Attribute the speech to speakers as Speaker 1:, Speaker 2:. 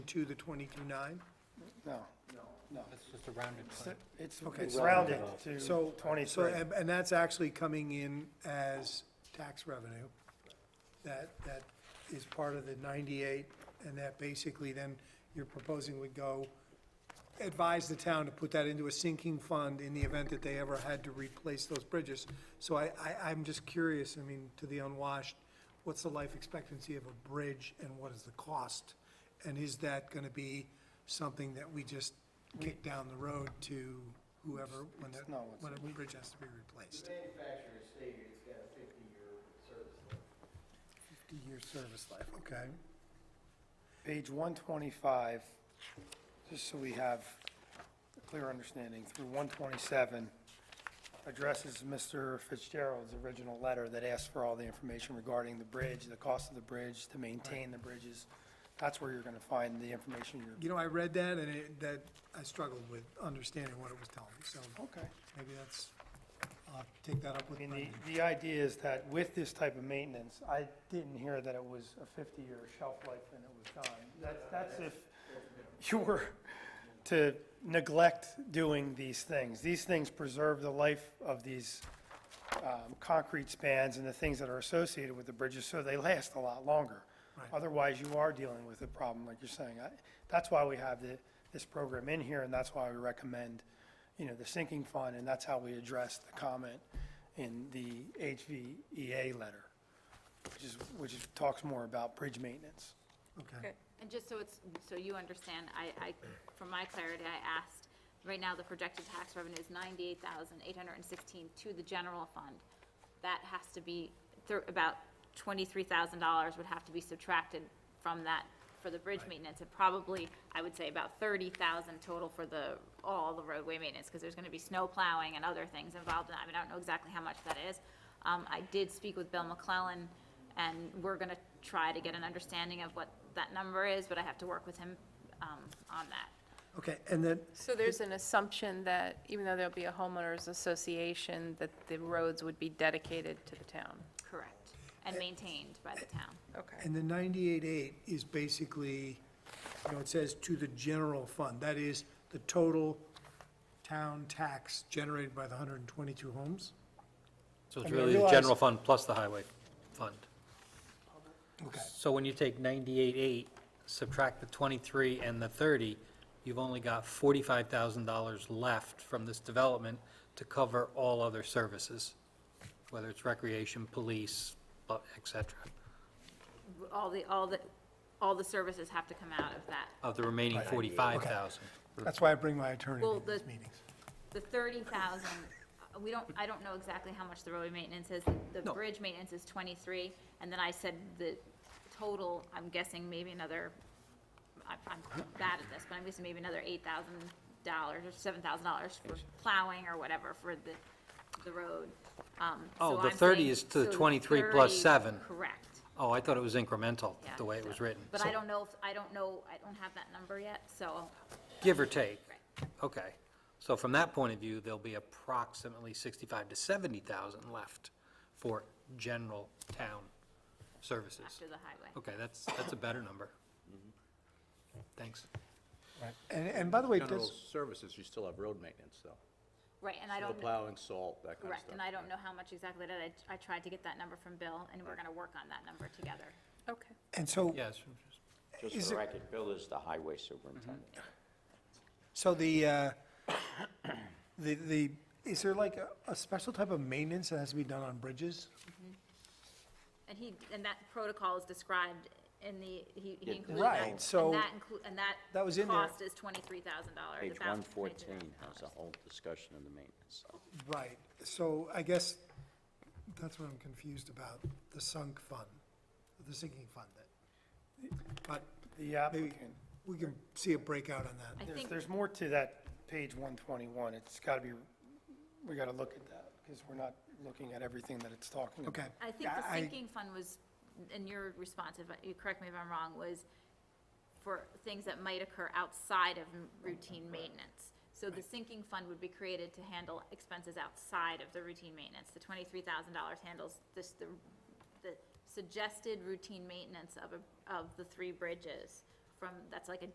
Speaker 1: twenty-two to twenty-two-nine?
Speaker 2: No,
Speaker 3: It's just a rounded plan.
Speaker 2: it's
Speaker 1: Okay,
Speaker 2: it's
Speaker 1: so-
Speaker 2: rounded
Speaker 1: So,
Speaker 2: to
Speaker 1: so,
Speaker 2: twenty-three.
Speaker 1: and and that's actually coming in as tax revenue. That, that is part of the ninety-eight, and that basically then you're proposing would go, advise the town to put that into a sinking fund in the event that they ever had to replace those bridges. So I, I, I'm just curious, I mean, to the unwashed, what's the life expectancy of a bridge and what is the cost? And is that gonna be something that we just kick down the road to whoever, when that,
Speaker 2: No, it's-
Speaker 1: when a bridge has to be replaced?
Speaker 4: Manufacturer's stated it's got a fifty-year service life.
Speaker 1: Fifty-year service life, okay.
Speaker 2: Page one twenty-five, just so we have a clear understanding, through one twenty-seven addresses Mr. Fitzgerald's original letter that asked for all the information regarding the bridge, the cost of the bridge, to maintain the bridges. That's where you're gonna find the information you're,
Speaker 1: You know, I read that and it, that, I struggled with understanding what it was telling me, so
Speaker 2: okay.
Speaker 1: maybe that's, I'll take that up with
Speaker 2: I mean,
Speaker 1: Brendan.
Speaker 2: the, the idea is that with this type of maintenance, I didn't hear that it was a fifty-year shelf life and it was done. That's, that's if you were to neglect doing these things. These things preserve the life of these, um, concrete spans and the things that are associated with the bridges, so they last a lot longer.
Speaker 1: Right.
Speaker 2: Otherwise, you are dealing with a problem, like you're saying. I- That's why we have the, this program in here, and that's why we recommend, you know, the sinking fund, and that's how we address the comment in the HVEA letter, which is, which is, talks more about bridge maintenance.
Speaker 1: Okay,
Speaker 5: And just so it's, so you understand, I, I, for my clarity, I asked, right now, the projected tax revenue is ninety-eight thousand, eight hundred and sixteen to the general fund. That has to be, thir- about twenty-three thousand dollars would have to be subtracted from that for the bridge maintenance, and probably, I would say about thirty thousand total for the, all the roadway maintenance, because there's gonna be snow plowing and other things involved in that, I mean, I don't know exactly how much that is. Um, I did speak with Bill McClellan, and we're gonna try to get an understanding of what that number is, but I have to work with him, um, on that.
Speaker 1: okay, and then,
Speaker 6: So there's an assumption that even though there'll be a homeowners association, that the roads would be dedicated to the town.
Speaker 5: Correct. And maintained by the town.
Speaker 6: Okay.
Speaker 1: and the ninety-eight-eight is basically, you know, it says to the general fund, that is the total town tax generated by the hundred and twenty-two homes?
Speaker 3: So it's
Speaker 2: I mean, I
Speaker 3: really the
Speaker 2: realize-
Speaker 3: general fund plus the highway fund.
Speaker 1: Okay.
Speaker 3: So when you take ninety-eight eight, subtract the twenty-three and the thirty, you've only got forty-five thousand dollars left from this development to cover all other services, whether it's recreation, police, bu- et cetera,
Speaker 5: All the, all the, all the services have to come out of that.
Speaker 3: of the remaining forty-five thousand.
Speaker 1: That's why I bring my attorney
Speaker 5: Well,
Speaker 1: to
Speaker 5: the-
Speaker 1: these meetings.
Speaker 5: The thirty thousand, uh, we don't, I don't know exactly how much the roadway maintenance is. The
Speaker 3: No.
Speaker 5: bridge maintenance is twenty-three, and then I said the total, I'm guessing maybe another, I- I'm bad at this, but I'm guessing maybe another eight thousand dollars or seven thousand dollars for plowing or whatever for the, the road. Um,
Speaker 3: Oh,
Speaker 5: so
Speaker 3: the
Speaker 5: I'm
Speaker 3: 30
Speaker 5: saying-
Speaker 3: is to
Speaker 5: so
Speaker 3: 23 plus
Speaker 5: 30
Speaker 3: 7.
Speaker 5: Correct.
Speaker 3: Oh, I thought it was incremental,
Speaker 5: Yeah,
Speaker 3: the way it
Speaker 5: so-
Speaker 3: was written.
Speaker 5: But I
Speaker 3: So-
Speaker 5: don't know, if I don't know, I don't have that number yet, so,
Speaker 3: Give or take?
Speaker 5: Right.
Speaker 3: Okay. So from that point of view, there'll be approximately 65 to 70,000 left for general town services.
Speaker 5: after the highway.
Speaker 3: Okay, that's, that's a better number. Thanks.
Speaker 1: And, and by the way,
Speaker 4: General
Speaker 1: does,
Speaker 4: services, you still have road maintenance, though.
Speaker 5: Right, and I
Speaker 4: Snow
Speaker 5: don't,
Speaker 4: plowing, salt, that kind of stuff.
Speaker 5: correct, and I don't know how much exactly that, is. I tried to get that number from Bill, and we're gonna work on that number together.
Speaker 6: Okay.
Speaker 1: and so,
Speaker 3: Yes,
Speaker 1: Is
Speaker 7: Just for
Speaker 1: it-
Speaker 7: the record, Bill is the highway superintendent.
Speaker 1: so the, uh, the, the, is there like a, a special type of maintenance that has to be done on bridges?
Speaker 5: And he, and that protocol is described in the, he he
Speaker 7: Yeah,
Speaker 5: included that.
Speaker 1: right, so
Speaker 5: And that inclu- and that.
Speaker 1: that was in there.
Speaker 5: Cost is twenty-three thousand dollars.
Speaker 7: Page 114 has a whole discussion of the maintenance.
Speaker 1: Right, so I guess that's what I'm confused about, the sunk fund, the sinking fund. that- But
Speaker 2: The
Speaker 1: maybe
Speaker 2: applicant.
Speaker 1: we can see a breakout on that.
Speaker 5: I
Speaker 2: There's,
Speaker 5: think,
Speaker 2: there's more to that page one twenty-one, it's gotta be, we gotta look at that, because we're not looking at everything that it's talking about.
Speaker 1: Okay,
Speaker 5: I think the
Speaker 1: I-
Speaker 5: sinking fund was, in your response, if, I- uh, you correct me if I'm wrong, was for things that might occur outside of m- routine maintenance. So the sinking fund would be created to handle expenses outside of the routine maintenance. The twenty-three thousand dollars handles this, the, the suggested routine maintenance of, a- of the three bridges from, that's like a